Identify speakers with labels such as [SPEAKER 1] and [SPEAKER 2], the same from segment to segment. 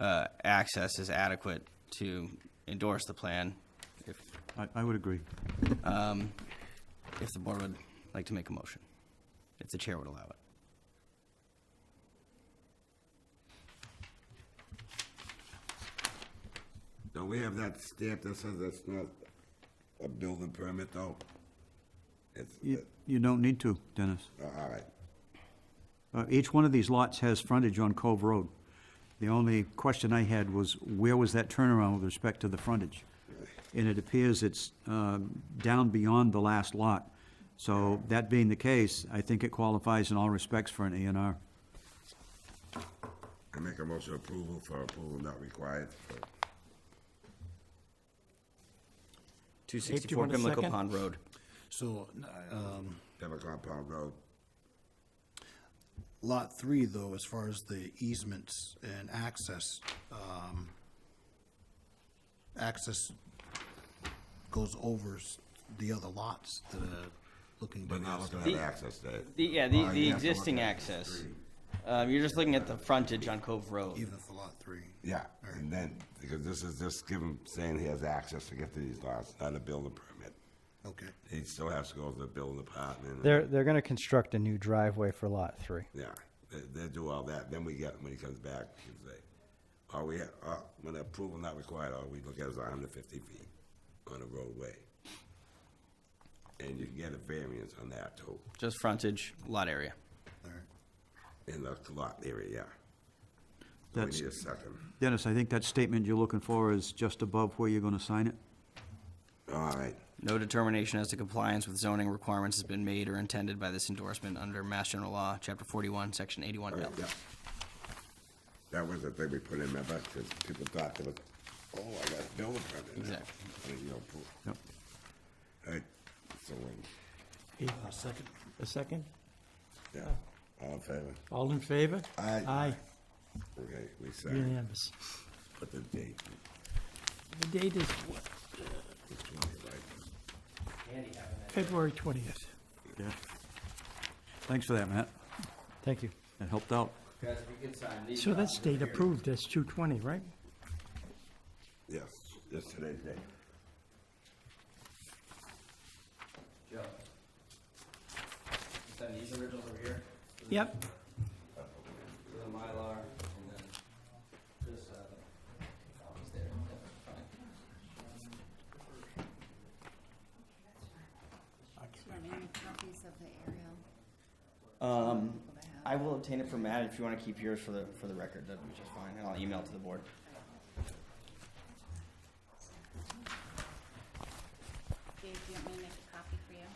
[SPEAKER 1] uh, access is adequate to endorse the plan, if,
[SPEAKER 2] I, I would agree.
[SPEAKER 1] if the board would like to make a motion, if the chair would allow it.
[SPEAKER 3] Don't we have that stamp that says that's not a building permit, though? It's,
[SPEAKER 2] You, you don't need to, Dennis.
[SPEAKER 3] all right.
[SPEAKER 2] Uh, Each one of these lots has frontage on Cove Road. The only question I had was, where was that turnaround with respect to the frontage? And it appears it's um, down beyond the last lot. So that being the case, I think it qualifies in all respects for an A and R.
[SPEAKER 3] I make a motion approval for approval not required.
[SPEAKER 1] Two
[SPEAKER 4] do you
[SPEAKER 1] sixty-four
[SPEAKER 4] want a
[SPEAKER 1] Pimlico
[SPEAKER 4] second?
[SPEAKER 1] Pond Road.
[SPEAKER 5] So, um,
[SPEAKER 3] Never compound road.
[SPEAKER 5] lot three, though, as far as the easements and access, um, access goes over s- the other lots that are looking to
[SPEAKER 3] But not
[SPEAKER 5] house.
[SPEAKER 3] looking at access to it.
[SPEAKER 1] The, yeah, the,
[SPEAKER 3] Uh,
[SPEAKER 1] the
[SPEAKER 3] you have to look
[SPEAKER 1] existing
[SPEAKER 3] at the
[SPEAKER 1] access.
[SPEAKER 3] street.
[SPEAKER 1] Um, you're just looking at the frontage on Cove Road.
[SPEAKER 5] even if the lot three.
[SPEAKER 3] Yeah, and then, because this is just giving, saying he has access to get to these lots, not a building permit.
[SPEAKER 5] Okay,
[SPEAKER 3] He still has to go to the building department.
[SPEAKER 4] They're, they're gonna construct a new driveway for lot three.
[SPEAKER 3] Yeah, they, they do all that, then we get, when he comes back, he can say, are we, uh, when approval not required, all we look at is hundred fifty feet on a roadway. And you can get a variance on that too,
[SPEAKER 1] Just frontage, lot area.
[SPEAKER 5] all right.
[SPEAKER 3] in the lot area, yeah. So We
[SPEAKER 2] That's-
[SPEAKER 3] need a second.
[SPEAKER 2] Dennis, I think that statement you're looking for is just above where you're going to sign it.
[SPEAKER 3] All right,
[SPEAKER 1] No determination as to compliance with zoning requirements has been made or intended by this endorsement under Mass General Law, Chapter forty-one, Section eighty-one L.
[SPEAKER 3] yeah. That was the thing we put in, remember, because people thought they were, oh, I got a building permit now.
[SPEAKER 1] Exactly.
[SPEAKER 3] I mean, you know, pro-
[SPEAKER 2] Yep.
[SPEAKER 3] all right, so, um,
[SPEAKER 5] Uh, second,
[SPEAKER 4] A second?
[SPEAKER 3] yeah, all in favor?
[SPEAKER 4] All in favor?
[SPEAKER 3] Aye.
[SPEAKER 4] Aye,
[SPEAKER 3] Okay, we signed,
[SPEAKER 4] unanimous.
[SPEAKER 3] put the date.
[SPEAKER 4] The date is what? February twentieth.
[SPEAKER 2] Yeah. Thanks for that, Matt.
[SPEAKER 4] Thank you.
[SPEAKER 2] That helped out.
[SPEAKER 4] So that's state approved, that's two twenty, right?
[SPEAKER 3] Yes, yes, today's date.
[SPEAKER 1] Send these originals over here,
[SPEAKER 4] Yep.
[SPEAKER 1] the Mylar, and then this, uh, copies there.
[SPEAKER 6] Do you have any copies of the aerial?
[SPEAKER 1] Um,
[SPEAKER 6] that I have?
[SPEAKER 1] I will obtain it for Matt if you want to keep yours for the, for the record, that'd be just fine, and I'll email it to the board.
[SPEAKER 6] Dave, do you want me to make a copy for you?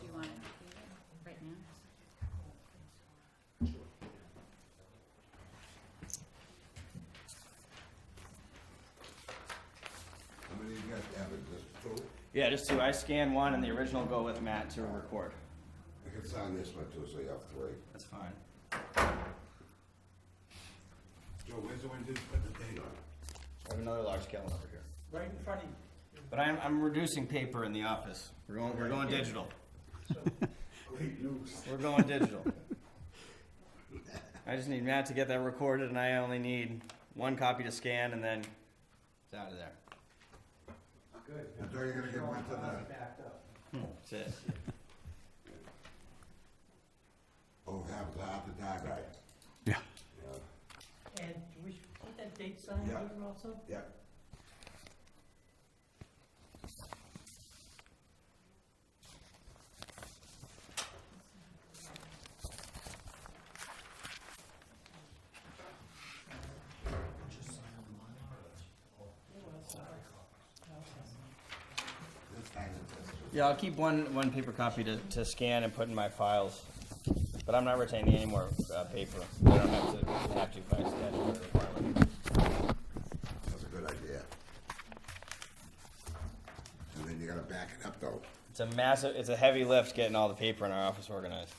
[SPEAKER 6] Do you want it completed right now?
[SPEAKER 3] How many you guys have it, just two?
[SPEAKER 1] Yeah, just two, I scan one and the original go with Matt to record.
[SPEAKER 3] I can sign this one too, so you have three.
[SPEAKER 1] That's fine.
[SPEAKER 3] Joe, where's the one you put the date on?
[SPEAKER 1] I have another large scale one over here. Right in front of you. But I'm, I'm reducing paper in the office, we're going, we're going digital,
[SPEAKER 3] Great news.
[SPEAKER 1] we're going digital. I just need Matt to get that recorded, and I only need one copy to scan, and then it's out of there,
[SPEAKER 3] I thought you were gonna get one tonight.
[SPEAKER 1] that's it.
[SPEAKER 3] Oh, have it after that, right?
[SPEAKER 2] Yeah.
[SPEAKER 7] And we should put that date sign
[SPEAKER 3] Yeah.
[SPEAKER 7] here also?
[SPEAKER 3] Yeah.
[SPEAKER 1] Yeah, I'll keep one, one paper copy to, to scan and put in my files, but I'm not retaining any more, uh, paper. I don't have to, have to by statute or requirement.
[SPEAKER 3] That's a good idea. And then you gotta back it up though.
[SPEAKER 1] It's a massive, it's a heavy lift getting all the paper in our office organized.